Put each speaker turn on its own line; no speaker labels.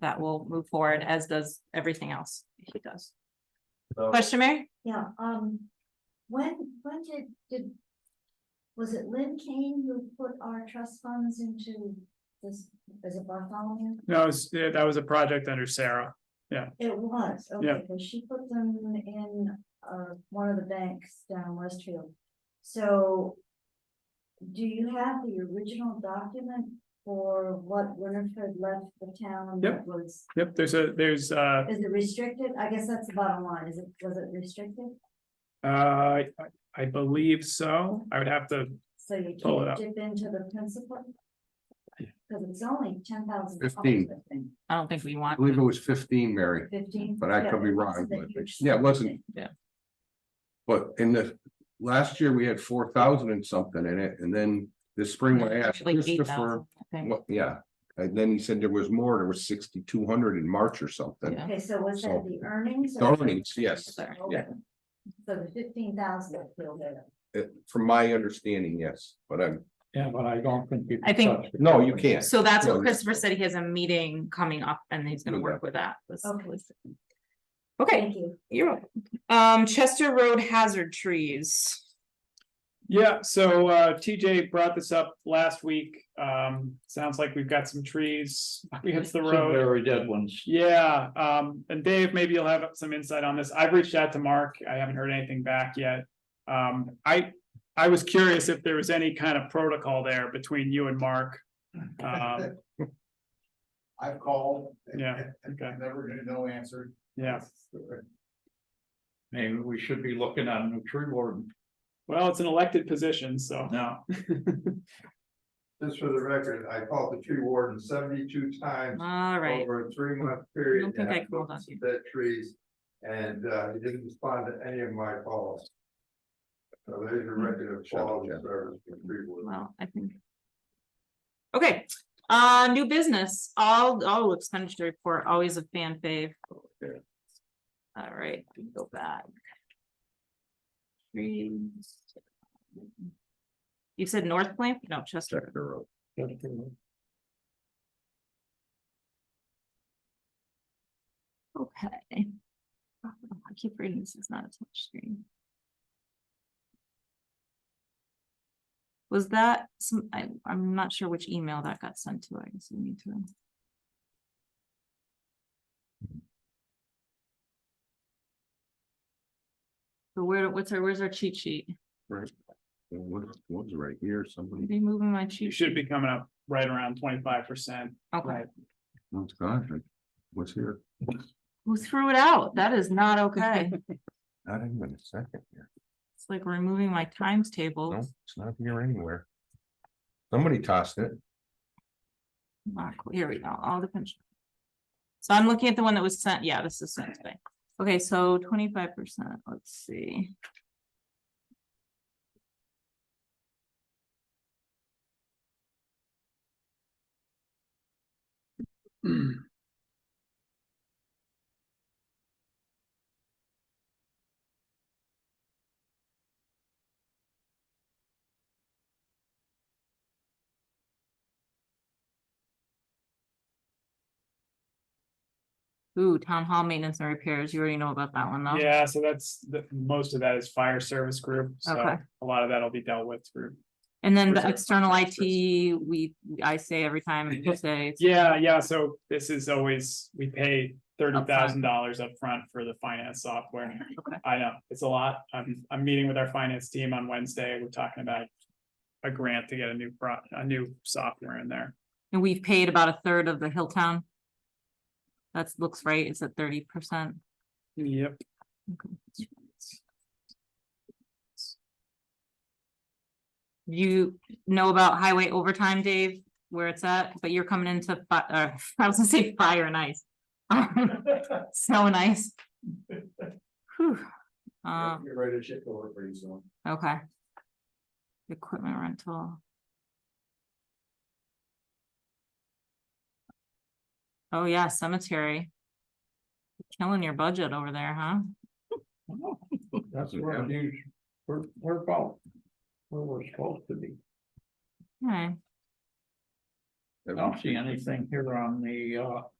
that will move forward, as does everything else he does.
So,
Question, Mary?
Yeah, um, when, when did, did, was it Lynn Kane who put our trust funds into this, is it Bartholomew?
No, it was- yeah, that was a project under Sarah.
It was,
Yeah.
okay, because she put them in, uh, one of the banks down Westfield. So do you have the original document for what Winifred left the town that
Yep.
was,
Yep, there's a, there's uh
is it restricted? I guess that's the bottom line. Is it, was it restricted?
uh, I- I believe so. I would have to,
So you
Pull it up.
can't dip into the principal? Cause it's only ten thousand.
15.
I don't think we
I
want.
believe it was fifteen, Mary,
Fifteen.
But I could be
Yeah, it
wrong,
wasn't a
but-
huge
yeah, it wasn't.
thing.
but in the, last year we had four thousand and something in it, and then this spring I asked
Like eight
Christopher.
thousand, I think.
What, yeah, and then he said there was more, there was sixty-two hundred in March or something.
Yeah.
Okay, so was that
So-
the earnings? or-
Earnings, yes,
Sorry.
Okay. So the fifteen thousand is still there.
uh, from my understanding, yes, but I'm,
Yeah, but I don't think. you can
I think-
touch it.
no, you can't.
So that's
No,
what
you-
Christopher said. He has a meeting coming up and he's gonna work with that. This-
Okay.
Okay,
Thank you.
you're welcome. Um, Chester Road hazard trees.
yeah, so uh TJ brought this up last week. Um, sounds like we've got some trees up against the
Some
road.
Very dead ones.
Yeah, um, and Dave, maybe you'll have some insight on this. I've reached out to Mark. I haven't heard anything back yet. Um, I, I was curious if there was any kind of protocol there between you and Mark. Um,
I've called. and-
Yeah,
and-
okay.
and Never gonna know answer.
yeah,
Maybe we should be looking at a new tree warden
well, it's an elected position, so.
now.
Just for the record, I called the tree warden seventy-two times
All right,
over a three-month
I
period.
don't think
and
I
I've
called
looked
on
at
you.
Dead trees, and, uh, he didn't respond to any of my calls. So there's your record of
Shut up,
quality
Jeff.
service for tree warden.
well, I think. Okay, uh, new business, all, all expenditure report, always a fan fave. All right, we go back. Trees. You said North Plant? No, Chester.
Check the road.
Okay. Oh, I keep reading, this is not a touch screen. Was that some, I, I'm not sure which email that got sent to, I guess we need to. So where, what's our, where's our cheat sheet?
Right. And What, what was right here, somebody,
Be moving my
You
cheat.
should be coming up right around twenty-five percent.
Okay,
oh gosh, what's here?
who threw it out? That is not okay.
Not even a second here,
It's like removing my times
no,
table.
it's not here anywhere. Somebody tossed it.
Ah, cool. Here we go, all the pension. So I'm looking at the one that was sent, yeah, this is sent today. Okay, so twenty-five percent, let's see. Ooh, town hall maintenance and repairs, you already know about that one though.
Yeah, so that's, the, most of that is fire service group, so
Okay.
a lot of that'll be dealt with through.
And then the
Reserve
external
fund
IT,
transfers.
we, I say every time, you say, it's-
Yeah, yeah, so this is always, we pay thirty thousand dollars upfront for the finance software.
Okay.
I know, it's a lot. I'm, I'm meeting with our finance team on Wednesday. We're talking about a grant to get a new pro, a new software in there.
and we've paid about a third of the Hilltown. That's, looks right, it's at thirty percent.
Yep.
You know about highway overtime, Dave, where it's at, but you're coming into, fi- uh, I was gonna say fire and ice. Snow and ice. Whew. Um,
Get ready to ship over pretty soon.
Okay. Equipment rental. Oh, yeah, cemetery. Killing your budget over there, huh?
That's where it is. We're, we're about where we're supposed to be.
Okay.
I don't see anything here on the, uh,